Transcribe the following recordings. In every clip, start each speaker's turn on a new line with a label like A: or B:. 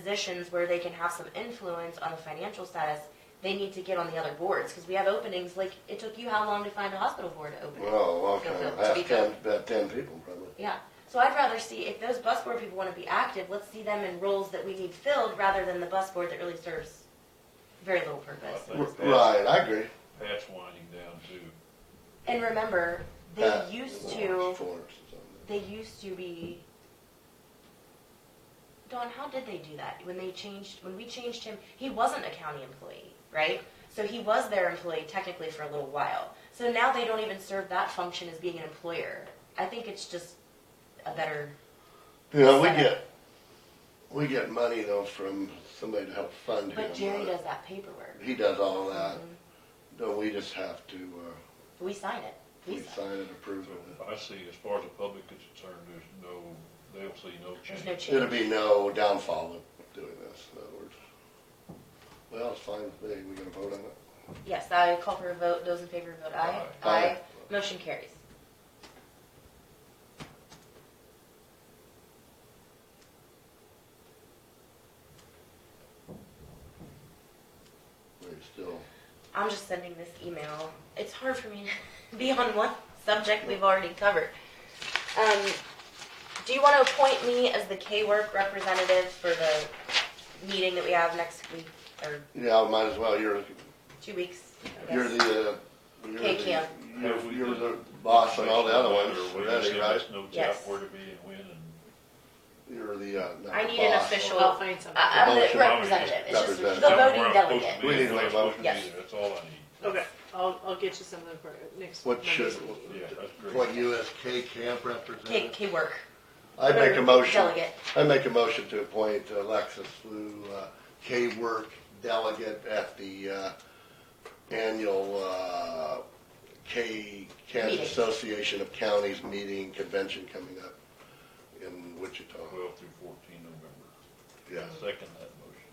A: positions where they can have some influence on the financial status, they need to get on the other boards, because we have openings, like, it took you how long to find a hospital board to open?
B: Well, a long
A: Go
B: time,
A: vote,
B: half
A: speak
B: ten,
A: up.
B: about ten people probably.
A: Yeah, so I'd rather see, if those bus board people wanna be active, let's see them in roles that we need filled, rather than the bus board that really serves very little purpose.
B: R-
C: That's-
B: Right, I agree.
C: Patch winding down too.
A: And remember, they
B: Pat
A: used
B: Lawrence,
A: to,
B: Florence or something.
A: they used to be. Don, how did they do that? When they changed, when we changed him, he wasn't a county employee, right? So he was their employee technically for a little while. So now they don't even serve that function as being an employer. I think it's just a better,
B: You know, we
A: Set up.
B: get, we get money though from somebody to help fund him.
A: but Jerry
B: right?
A: does that paperwork.
B: He does all that.
A: Mhm.
B: No, we just have to, uh,
A: We sign it.
B: we
A: We sign.
B: sign it, approve
C: So
B: it.
C: I see, as far as the public is concerned, there's no, they'll see no
A: There's no
C: change.
A: change.
B: It'll be no downfall of doing this, in other words. Well, it's fine with me. We gonna vote on it?
A: Yes, I call for a vote. Those in favor vote aye.
B: Aye.
A: Aye.
B: Aye.
A: Motion carries.
B: We still,
A: I'm just sending this email. It's hard for me to be on one subject we've already covered. Um, do you want to appoint me as the K-Work representative for the meeting that we have next week, or
B: yeah, might as well. You're,
A: two weeks? I
B: you're
A: guess?
B: the, uh, you're
A: Okay,
B: the,
A: Kim.
C: Have
B: you're,
C: we
B: you're the
C: done-
B: boss on all the other ones
C: Or we just
B: already, right?
C: send notes out
A: Yes.
C: where to be and when and.
B: You're the, uh, not
A: I
B: the
A: need an
B: boss.
A: official-
D: I'll find something.
A: I- I'm the
B: Motion.
A: representative. It's just the
B: Representative.
A: voting
C: Somewhere I'm supposed to
A: delegate.
C: be,
B: We need to
C: where
B: make
C: I'm
B: a
C: supposed to be
A: motion.
C: there. That's all I need.
D: Okay, I'll, I'll get you something for next.
B: What should,
D: Monday's meeting.
C: Yeah, that's great.
B: what USK camp
A: K,
B: representative?
A: K-Work.
B: I make a motion.
A: Delegate.
B: I make a motion to appoint Alexis Lou uh, K-Work delegate at the uh, annual uh, K Kansas
A: Meeting.
B: Association of Counties meeting convention coming up in Wichita.
C: Twelve through fourteen November.
B: Yes.
C: Second that motion.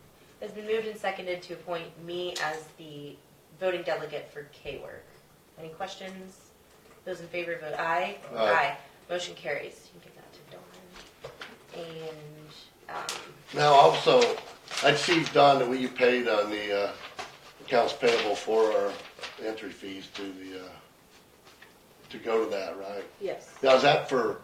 A: It's been moved and seconded to appoint me as the voting delegate for K-Work. Any questions? Those in favor vote aye.
B: Aye.
A: Motion carries. You can give that to Dawn. And, um,
B: Now also, I see Don that we you paid on the uh, accounts payable for our entry fees to the, uh, to go to that, right?
D: Yes.
B: Now, is that for,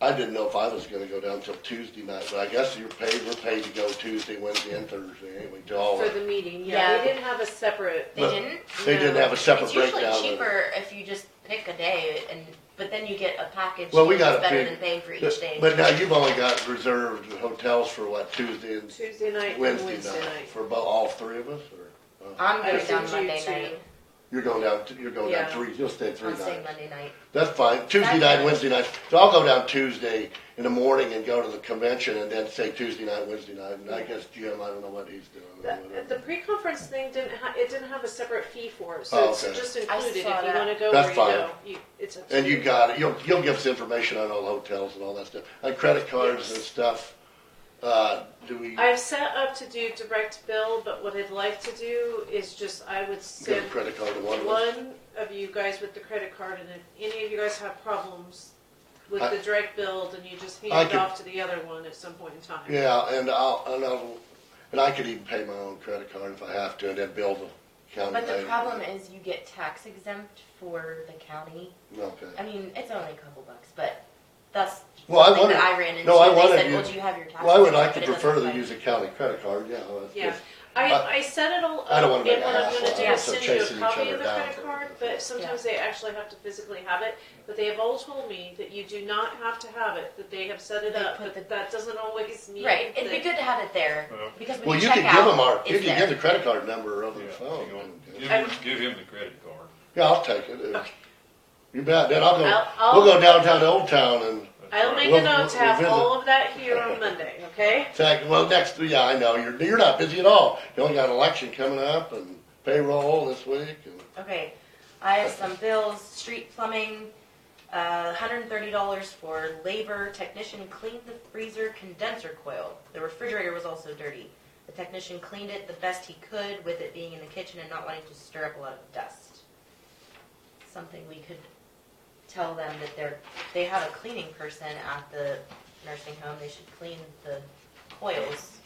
B: I didn't know if I was gonna go down till Tuesday night, but I guess you're paid, we're paid to go Tuesday, Wednesday, and Thursday, anyway, to all.
D: For the meeting, yeah,
A: Oh. Yeah.
D: they didn't have a separate,
A: they
B: But
A: didn't?
B: they didn't have a separate
A: It's
B: breakdown of it.
A: usually cheaper if you just pick a day and, but then you get a package.
B: Well, we
A: that's
B: got a
A: Better
B: big-
A: than paying for each day.
B: But but now you've only got reserved hotels for what, Tuesday and
D: Tuesday night and
B: Wednesday
D: Wednesday
B: night?
D: night.
B: For about all three of us, or? uh,
A: I'm
D: I
A: going down
D: sent you
A: Monday
D: two.
A: night.
B: You're going down, t- you're going down
D: Yeah.
B: three, you'll stay three
A: I'm
B: nights.
A: staying Monday night.
B: That's fine, Tuesday night,
A: Saturday.
B: Wednesday night, so I'll go down Tuesday in the morning and go to the convention and then say Tuesday night, Wednesday night, and I guess Jim, I don't know what he's doing. or
D: The, the
B: whatever.
D: pre-conference thing didn't ha, it didn't have a separate fee for it,
B: Oh,
D: so it's
B: okay.
D: just
A: I
D: included, if you
A: saw that.
D: wanna go
B: That's
D: where you
B: fine.
D: go, you, it's up to
B: And you got it. You'll, you'll give us information on all the hotels and all that stuff. And credit cards and
D: Yes.
B: stuff. Uh, do we
D: I've set up to do direct bill, but what I'd like to do is just, I would
B: give a
D: send
B: credit card to one of us?
D: one of you guys with the credit card, and if any of you guys have problems with
B: I-
D: the direct bill, then you just
B: I
D: hand it
B: could-
D: off to the other one at some point in time.
B: Yeah, and I'll, and I'll, and I could even pay my own credit card if I have to and then bill the county
A: But
B: later.
A: the problem is you get tax exempt for the county.
B: Okay.
A: I mean, it's only a couple bucks, but that's
B: Well, I
A: something
B: wondered,
A: that I ran into.
B: no, I
A: They
B: wanted
A: said,
B: you-
A: Well, do you have your taxes?
B: well, I would like
A: But
B: to
A: it doesn't
B: prefer to
A: apply.
B: use a county credit card, yeah. that's
D: Yeah,
B: good.
D: I,
B: But-
D: I set it all up.
B: I don't wanna make
D: and
B: a
D: what I'm
B: hassle
D: gonna do
B: out of
D: is
B: it, so
D: send you a
B: chasing each
D: copy
B: other
D: of the
B: down
D: credit
B: for it.
D: card, but sometimes they actually have to physically have it. But they have all told me that you do not have to have it, that they have set it
A: They
D: up,
A: put
D: but
A: the-
D: that doesn't always mean.
A: Right, it'd
D: that-
A: be good to have it there
C: Well.
A: because when
B: Well, you
A: check
B: can
A: out,
B: give them our, you
A: it's
B: can
A: there.
B: give the credit card number over
C: Yeah,
B: the
C: so you
B: phone.
C: want- Give
D: I-
C: him, give him the credit card.
B: Yeah, I'll take it. yeah.
D: Okay.
B: You bet. Then I'll
D: I'll-
B: go,
D: I'll-
B: we'll go downtown to Old Town and
C: That's
D: I'll
C: right.
D: make
B: We'll-
D: a note to
B: we'll-
D: have
B: we'll
D: all of that here on Monday, okay?
B: Exactly. Well, next, yeah, I know, you're, you're not busy at all. You only got an election coming up and payroll this week and,
A: Okay, I have some bills, street plumbing, uh, hundred and thirty dollars for labor, technician cleaned the freezer condenser coil. The refrigerator was also dirty. The technician cleaned it the best he could with it being in the kitchen and not wanting to stir up a lot of dust. Something we could tell them that they're, they have a cleaning person at the nursing home, they should clean the coils